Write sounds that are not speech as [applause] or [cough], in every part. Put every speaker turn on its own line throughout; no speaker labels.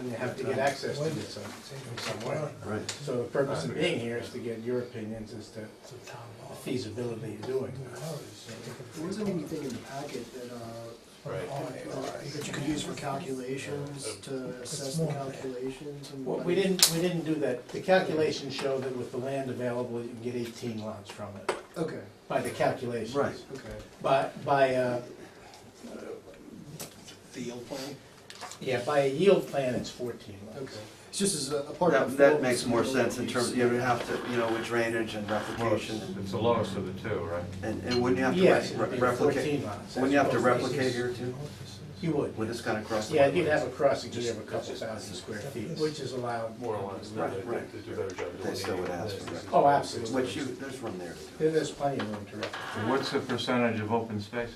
And you have to get access to it some- from somewhere.
Right.
So the purpose of being here is to get your opinions as to the feasibility of doing
There wasn't anything in the packet that, uh,
Oh,
that you could use for calculations, to assess the calculations and.
Well, we didn't, we didn't do that. The calculations show that with the land available, you can get eighteen lots from it,
Okay,
by the calculations.
Right.
okay.
By, by, uh,
The yield plan?
yeah, by a yield plan, it's fourteen
Okay,
lots.
it's just as a a part of.
That, that makes more sense in terms, you would have to, you know, with drainage and
Well, it's
replication,
it's the lowest of the two, right?
and, and wouldn't you have
Yes,
to
it'd
re-
be
re- replicate?
fourteen lots.
Wouldn't you have to
That's what-
replicate here too,
You would.
with this kind of cross?
Yeah, you'd have a crossing here of a couple thousand square feet, which is allowed.
More or less,
Right,
they
right.
they do a better job.
They still would ask for that.
Oh, absolutely.
Which you, there's room there. to do
There- There's plenty of room to replicate.
What's the percentage of open space?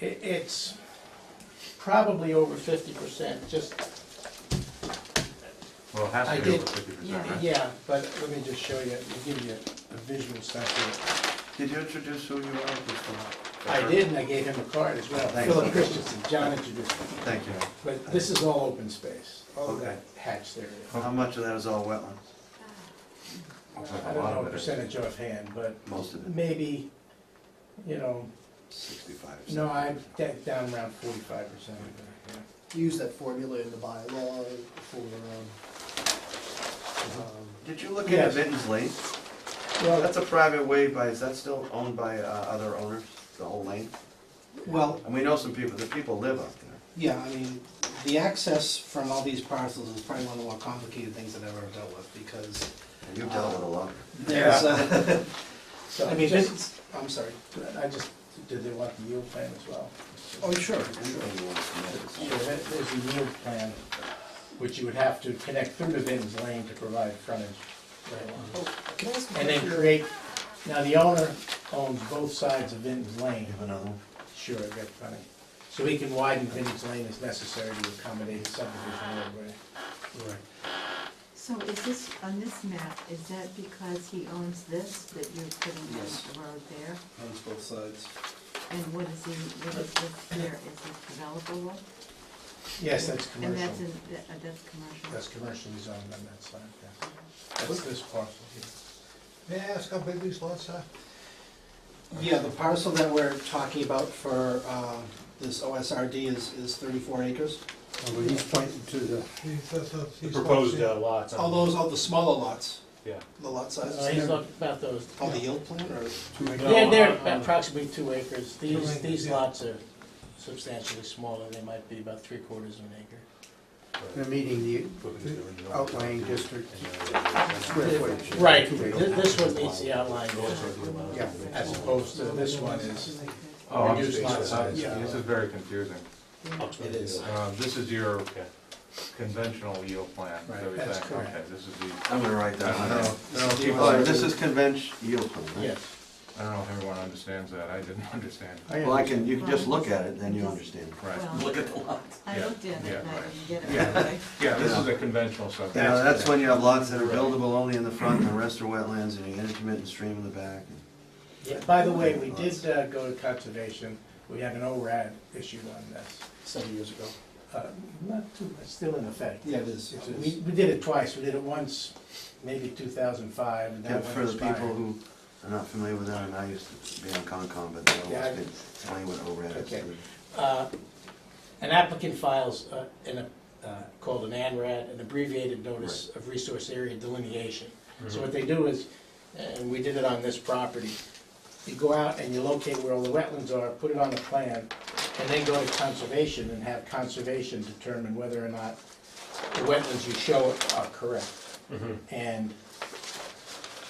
It, it's probably over fifty percent, just,
Well, it has
I
to be over
did-
fifty percent, right?
yeah, but let me just show you, I'll give you a visual sense of
it. Did you introduce who you are? Just,
it.
uh,
I did, and I gave him a card as well,
Thanks.
Philip Christensen, John introduced me.
Thank you.
But this is all open space, all of
Okay.
that hatched area.
How much of that is all wetlands?
Looks like a
I don't
lot
know
of it is.
percentage offhand, but
Most of it,
maybe, you know,
sixty-five.
no, I'm da- down around forty-five percent.
Use that formula in the bylaw for, um, um,
Did you look
Yes.
into Vinton's Lane?
Well,
That's a private way by, is that still owned by, uh, other owners, the whole lane?
Well,
And we know some people, the people live up there.
yeah, I mean, the access from all these parcels is probably one of the more complicated things I've ever dealt with, because
And You've dealt with a lot.
there's, uh,
so
I mean,
just-
this, I'm sorry.
I just, did they want the yield plan as well?
Oh, sure.
Sure, there- there's a yield plan, which you would have to connect through to Vinton's Lane to provide frontage.
Can I ask a
And then
question?
create, now the owner owns both sides of Vinton's Lane.
Another one?
Sure, I got plenty. So he can widen Vinton's Lane as necessary to accommodate the subdivision roadway.
So is this, on this map, is that because he owns this, that you're putting
Yes.
the road there?
Owns both sides.
And what is he, what is this here, is this developable?
Yes, that's
And that's,
commercial.
in- that- uh, that's commercial?
That's commercially zoned on that side, yeah. That's this parcel here.
May I ask how big these lots are?
Yeah, the parcel that we're talking about for, uh, this OSRD is, is thirty-four acres.
He's pointing to the.
Proposed lots.
All those, all the smaller lots,
Yeah.
the lot sizes.
Uh, He's talking about those.
Oh,
On the yield plan, or?
They're, they're approximately two acres. These, these lots are substantially smaller. They might be about three quarters of an acre.
They're meeting the outlying district square footage.
Right, Th- this one meets the outline
Yeah.
as opposed to this one is,
Oh, I'm
Reduced lot size.
sorry. this is very confusing.
It is.
Uh, This is your conventional yield plan. is
Right,
everything.
that's correct.
Okay, This is the,
I'm gonna write that
I don't know,
one.
I don't know if people-
Oh, this is convention yield plan, right?
yes.
I don't know if everyone understands that, I didn't [laughs] understand. it.
Well, I can, you can just look at it, then you understand.
Right.
Well,
Look at the lots.
I
Yeah,
looked at
yeah,
it, and I
right.
didn't get it
Yeah.
right [laughs] away.
Yeah, this is a conventional
You
subdivision.
know, that's when you have lots that are buildable only in the front, and the rest are wetlands, and you get intermittent stream in the back.
Yeah, By the way, we did uh, go to conservation. We had an ORAD issued on this.
Seven years ago.
Uh, Not too, it's still in effect.
Yeah, it is.
It's-
It
We,
is.
we did it twice. We did it once, maybe two thousand five, and
Yeah,
that one
For the people
expired.
who are not familiar with that, and I used to be on Concom, but they
Yeah, I-
always explain what ORAD is.
Okay. Uh, An applicant files uh, in a, uh, called an ANRAD, an abbreviated notice of resource area delineation. So what they do is, and we did it on this property, you go out and you locate where all the wetlands are, put it on the plan, and then go to conservation and have conservation determine whether or not the wetlands you show are correct. And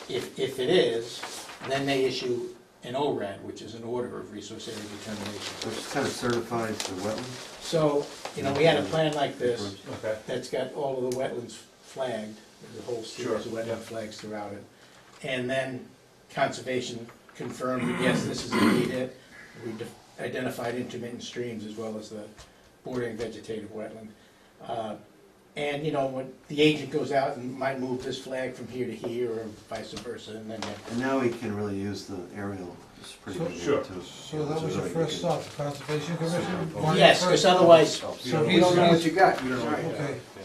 if, if it is, then they issue an ORAD, which is an order of resource area determination.
Which kind of certifies the wetland.
So, you know, we had a plan like this
Okay.
that's got all of the wetlands flagged, there's a whole series of
Sure, yeah.
wetland flags throughout it. And then conservation confirmed, that, yes, this is indeed it. We de- identified intermittent streams as well as the bordering vegetative wetland. Uh, And, you know, when the agent goes out and might move this flag from here to here or vice versa, and then they-
And now we can really use the aerial, it's pretty
So-
good
Sure.
too.
So that was your first stop, Conservation Commission?
Why
Yes, because otherwise,
So
You
he
know,
don't know
it's-
what you got?
You don't know what you
Okay,